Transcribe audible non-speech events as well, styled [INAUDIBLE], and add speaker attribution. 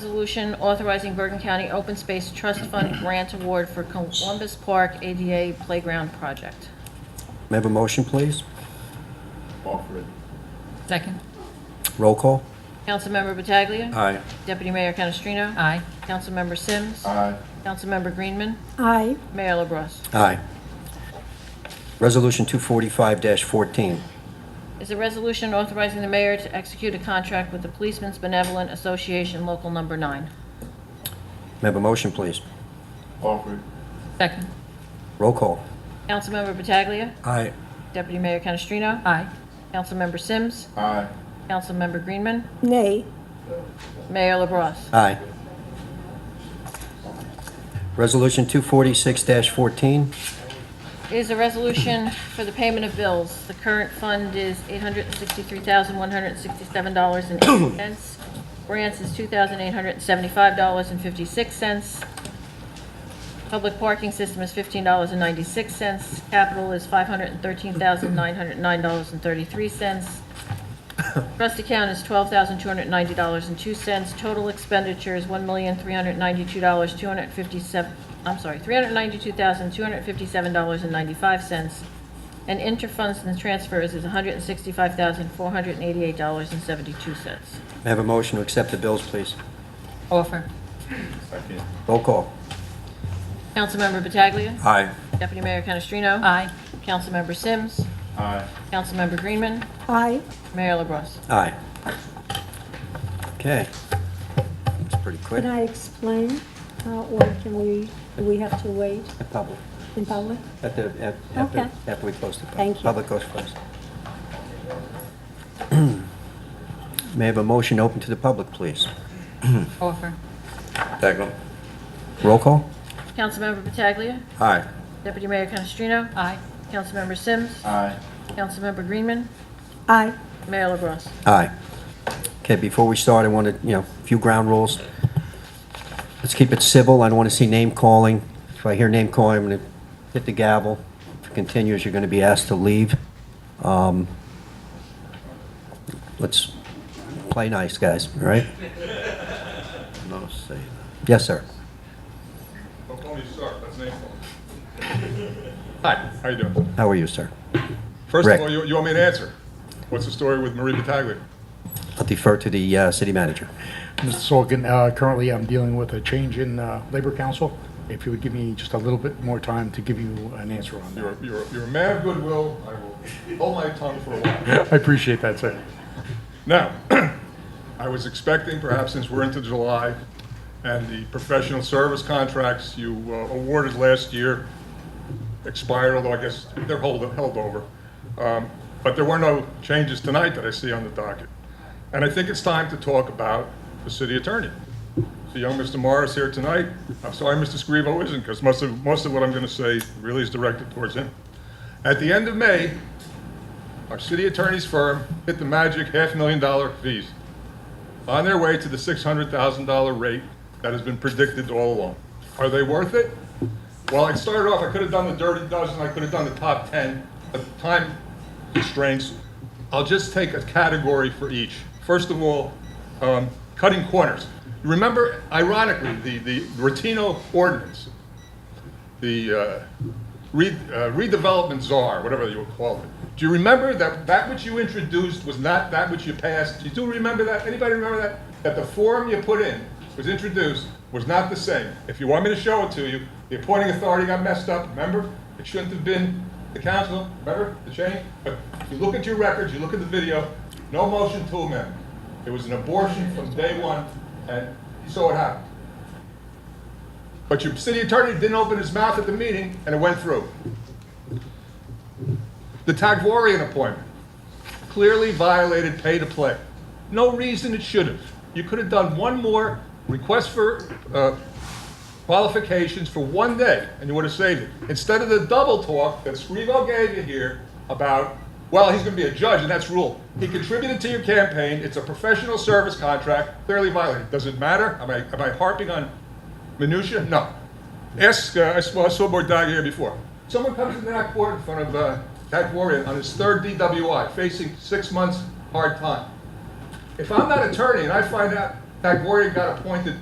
Speaker 1: Resolution authorizing Bergen County Open Space Trust Fund grant award for Columbus Park ADA Playground Project.
Speaker 2: May I have a motion, please?
Speaker 3: Offer it.
Speaker 4: Second.
Speaker 2: Roll call?
Speaker 1: Councilmember Pataglia.
Speaker 2: Aye.
Speaker 1: Deputy Mayor Canestrino.
Speaker 4: Aye.
Speaker 1: Councilmember Sims.
Speaker 3: Aye.
Speaker 1: Councilmember Greenman.
Speaker 5: aye,
Speaker 1: Mayor LaBrus.
Speaker 2: Aye. Resolution 245-14.
Speaker 1: Is a resolution authorizing the mayor to execute a contract with the Policemen's Benevolent Association Local Number 9.
Speaker 2: May I have a motion, please?
Speaker 3: Offer it.
Speaker 4: Second.
Speaker 2: Roll call?
Speaker 1: Councilmember Pataglia.
Speaker 2: Aye.
Speaker 1: Deputy Mayor Canestrino.
Speaker 4: Aye.
Speaker 1: Councilmember Sims.
Speaker 3: Aye.
Speaker 1: Councilmember Greenman.
Speaker 5: nay,
Speaker 1: Mayor LaBrus.
Speaker 2: Aye. Resolution 246-14.
Speaker 1: is a resolution for the payment of bills. The current fund is $863,167.80. Grants is $2,875.56. Public parking system is $15.96. Capital is $513,909.33. Trust account is twelve thousand two hundred ninety dollars and two cents. Total expenditures, one million three hundred ninety-two dollars, two hundred fifty-seven, I'm sorry, three hundred ninety-two thousand two hundred fifty-seven dollars and ninety-five cents. And interfunds and transfers is one hundred sixty-five thousand four hundred eighty-eight dollars and seventy-two cents.
Speaker 2: May I have a motion to accept the bills, please?
Speaker 4: Offer.
Speaker 3: Second.
Speaker 2: Roll call?
Speaker 1: Councilmember Pataglia.
Speaker 2: Aye.
Speaker 1: Deputy Mayor Canestrino.
Speaker 4: Aye.
Speaker 1: Councilmember Sims.
Speaker 3: Aye.
Speaker 1: Councilmember Greenman.
Speaker 5: aye,
Speaker 1: Mayor LaBrus.
Speaker 2: Aye. Okay. That's pretty quick.
Speaker 5: can I explain? Uh, Or can we, do we have to wait
Speaker 2: The public,
Speaker 5: in public?
Speaker 2: at the, at- after,
Speaker 5: Okay.
Speaker 2: after we close the public.
Speaker 5: Thank you.
Speaker 2: Public goes first. [CLEARS THROAT] May I have a motion open to the public, please?
Speaker 4: Offer.
Speaker 2: Second. Roll call?
Speaker 1: Councilmember Pataglia.
Speaker 2: Aye.
Speaker 1: Deputy Mayor Canestrino.
Speaker 4: Aye.
Speaker 1: Councilmember Sims.
Speaker 3: Aye.
Speaker 1: Councilmember Greenman.
Speaker 5: Aye,
Speaker 1: Mayor LaBrus.
Speaker 2: Aye. Okay, before we start, I want to, you know, a few ground rules. Let's keep it civil, I don't want to see name calling. If I hear name calling, I'm going to hit the gavel. If it continues, you're going to be asked to leave. Um, Let's play nice, guys, all right? No, say. Yes, sir.
Speaker 6: Tony Stark, that's name Hi, how you doing?
Speaker 2: How are you, sir?
Speaker 6: First
Speaker 2: Rick.
Speaker 6: of all, you, you want me to answer? What's the story with Marie Pataglia?
Speaker 2: I'll defer to the uh, city manager.
Speaker 7: Mr. Sorkin, uh, currently I'm dealing with a change in uh, Labor Council. If you would give me just a little bit more time to give you an answer on
Speaker 6: You're,
Speaker 7: that.
Speaker 6: a- you're, a- you're a man of goodwill. I will hold my tongue for a while.
Speaker 7: I appreciate that, sir.
Speaker 6: Now, [CLEARS THROAT] I was expecting, perhaps since we're into July, and the professional service contracts you uh, awarded last year expired, although I guess they're hold, held over. Um, But there were no changes tonight that I see on the docket. And I think it's time to talk about the city attorney. So young Mr. Morris here tonight, I'm sorry Mr. Scrivo isn't, because most of, most of what I'm going to say really is directed towards him. At the end of May, our city attorney's firm hit the magic half million dollar fees on their way to the $600,000 rate that has been predicted all along. Are they worth it? Well, I started off, I could have done the dirty dozen, I could have done the top 10, but time constraints. I'll just take a category for each. First of all, um, cutting corners. Remember, ironically, the, the Rotino ordinance, the uh, re- uh, redevelopment czar, whatever you would call it. Do you remember that that which you introduced was not that which you passed? You do remember that? Anybody remember that? That the form you put in was introduced was not the same. If you want me to show it to you, the appointing authority got messed up, remember? It shouldn't have been the council, remember, the change? But if you look at your records, you look at the video, no motion to amend. It was an abortion from day one, and you saw it happen. But your city attorney didn't open his mouth at the meeting, and it went through. The Tagwarian appointment clearly violated pay to play. No reason it should have. You could have done one more request for uh, qualifications for one day, and you would have saved it. Instead of the double talk that Scrivo gave you here about, well, he's going to be a judge, and that's rule. He contributed to your campaign. It's a professional service contract, clearly violated. Does it matter? Am I, am I harping on minutia? No. Ask, uh, I saw, I saw Bordag here before. Someone comes into that court in front of uh, that warrior on his third DWI, facing six months hard time. If I'm not attorney and I find out Tagoria got appointed